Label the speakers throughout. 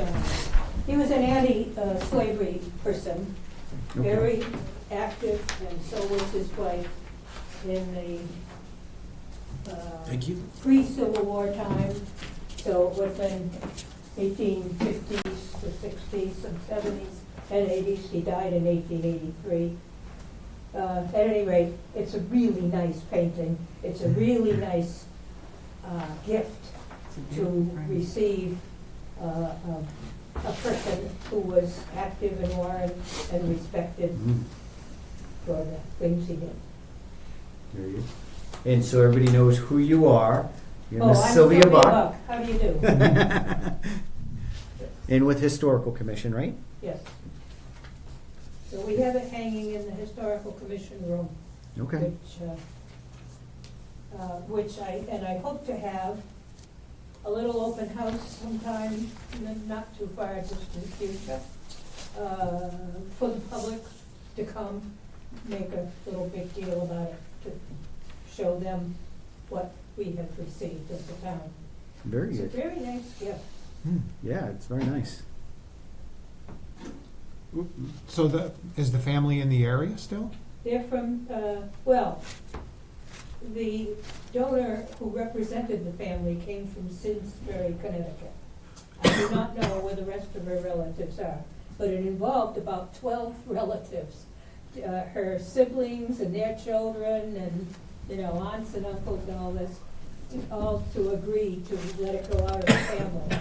Speaker 1: uh, he was an anti-slavery person,
Speaker 2: Okay.
Speaker 1: very active, and so was his wife in the uh,
Speaker 2: Thank you.
Speaker 1: pre-Civil War time, so it would have been eighteen fifties to sixties and seventies and eighties. He died in eighteen eighty-three. Uh, at any rate, it's a really nice painting. It's a really nice, uh, gift to receive, uh, a, a person who was active in Warren and respected
Speaker 2: Mhm.
Speaker 1: for the things he did.
Speaker 2: There you go. And so everybody knows who you are. You're
Speaker 1: Oh, I'm
Speaker 2: Miss Sylvia Buck.
Speaker 1: How do you do?
Speaker 2: And with Historical Commission, right?
Speaker 1: Yes. So we have it hanging in the historical commission room,
Speaker 2: Okay.
Speaker 1: which, uh, uh, which I, and I hope to have a little open house sometime, n- not too far distant future, uh, for the public to come, make a little big deal about it, to show them what we have received as a town.
Speaker 2: Very
Speaker 1: It's a
Speaker 2: good.
Speaker 1: very nice gift.
Speaker 3: Hmm.
Speaker 2: Yeah, it's very nice.
Speaker 3: So the, is the family in the area still?
Speaker 1: They're from, uh, well, the donor who represented the family came from Simsbury, Connecticut. I do not know where the rest of her relatives are, but it involved about twelve relatives. Uh, Her siblings and their children and, you know, aunts and uncles and all this, all to agree to let it go out of the family.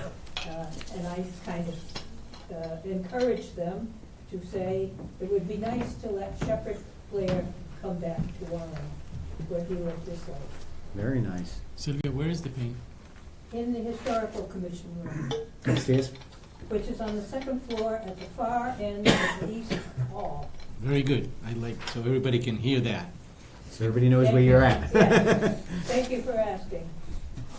Speaker 1: Uh, And I kind of uh, encouraged them to say, it would be nice to let Shepherd Blair come back to Warren, where he lived his life,
Speaker 2: Very nice.
Speaker 4: Sylvia, where is the paint?
Speaker 1: in the historical commission room.
Speaker 2: Upstairs?
Speaker 1: which is on the second floor at the far end of the east hall.
Speaker 4: Very good. I like, so everybody can hear that.
Speaker 2: So everybody knows where you're at.
Speaker 1: Yes. Thank you for asking.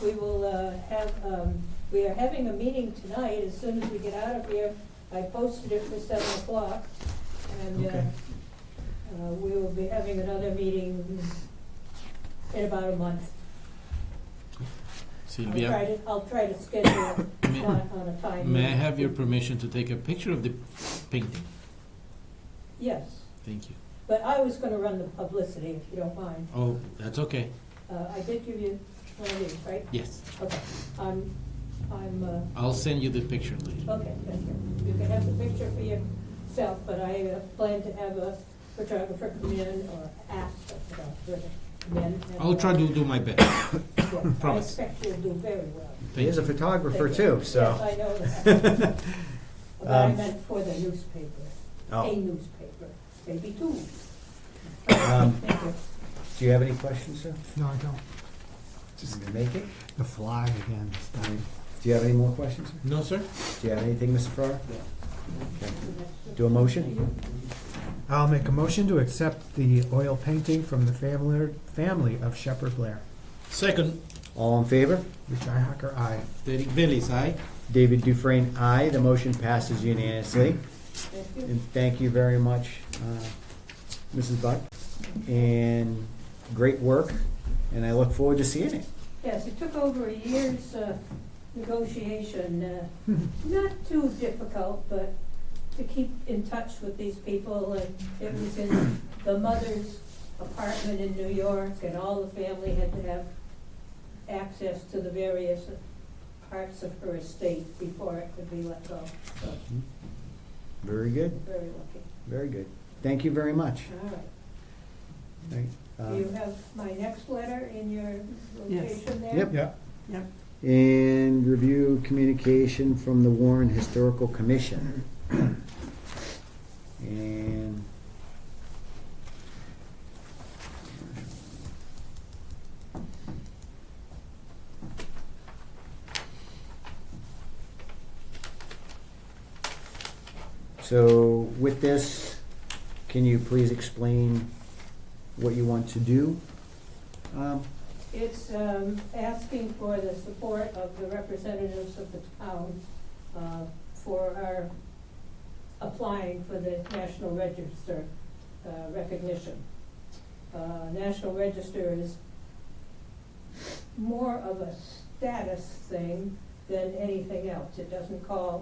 Speaker 1: We will uh, have, um, we are having a meeting tonight, as soon as we get out of here. I posted it for seven o'clock, and uh,
Speaker 3: Okay.
Speaker 1: uh, we will be having another meeting in about a month. I'll try
Speaker 4: Sylvia,
Speaker 1: to, I'll try to schedule it
Speaker 4: May-
Speaker 1: on on a time.
Speaker 4: may I have your permission to take a picture of the painting?
Speaker 1: Yes,
Speaker 4: Thank you.
Speaker 1: but I was gonna run the publicity, if you don't mind.
Speaker 4: Oh, that's okay.
Speaker 1: Uh, I did give you one of these, right?
Speaker 4: Yes,
Speaker 1: Okay, I'm, I'm, uh,
Speaker 4: I'll send you the picture later.
Speaker 1: okay, thank you. You can have the picture for yourself, but I uh, plan to have a photographer come in or ask a photographer to come in. and,
Speaker 4: I'll try
Speaker 1: uh,
Speaker 4: to do my best.
Speaker 1: yes,
Speaker 4: promise.
Speaker 1: I expect you'll do very well.
Speaker 2: He
Speaker 4: Thank
Speaker 2: is a
Speaker 4: you.
Speaker 2: photographer
Speaker 1: Thank you.
Speaker 2: too, so.
Speaker 1: Yes, I know that. But I
Speaker 2: Um,
Speaker 1: meant for the newspaper, a
Speaker 2: Oh,
Speaker 1: newspaper, maybe two.
Speaker 2: Um,
Speaker 1: Thank you.
Speaker 2: do you have any questions, sir?
Speaker 3: No, I don't.
Speaker 2: Just
Speaker 3: Just
Speaker 2: gonna make it?
Speaker 3: the fly again. this
Speaker 2: All right.
Speaker 3: time.
Speaker 2: Do you have any more questions, sir?
Speaker 4: No, sir?
Speaker 2: Do you have anything, Mr. Farrar? Okay. Do a motion?
Speaker 3: I'll make a motion to accept the oil painting from the family, family of Shepherd Blair.
Speaker 4: Second,
Speaker 2: All in favor?
Speaker 3: Richai Hacker, aye.
Speaker 4: Derek Bellis, aye?
Speaker 2: David Dufresne, aye. The motion passes unanimously.
Speaker 1: Thank you.
Speaker 2: And thank you very much, uh, Mrs. Buck, and great work, and I look forward to seeing it.
Speaker 1: Yes, it took over a year's uh, negotiation, uh,
Speaker 2: Hmm.
Speaker 1: not too difficult, but to keep in touch with these people. And it was in the mother's apartment in New York, and all the family had to have access to the various parts of her estate before it could be let go. So,
Speaker 2: Very good,
Speaker 1: very lucky.
Speaker 2: very good. Thank you very much.
Speaker 1: All right.
Speaker 2: Thank-
Speaker 1: Do you
Speaker 2: uh,
Speaker 1: have my next letter in your
Speaker 5: Yes.
Speaker 1: location there?
Speaker 2: Yep.
Speaker 3: Yeah.
Speaker 2: And review communication from the Warren Historical Commission. And. So with this, can you please explain what you want to do? Um,
Speaker 1: It's um, asking for the support of the representatives of the town uh, for our applying for the National Register uh, recognition. Uh, National Register is more of a status thing than anything else. It doesn't call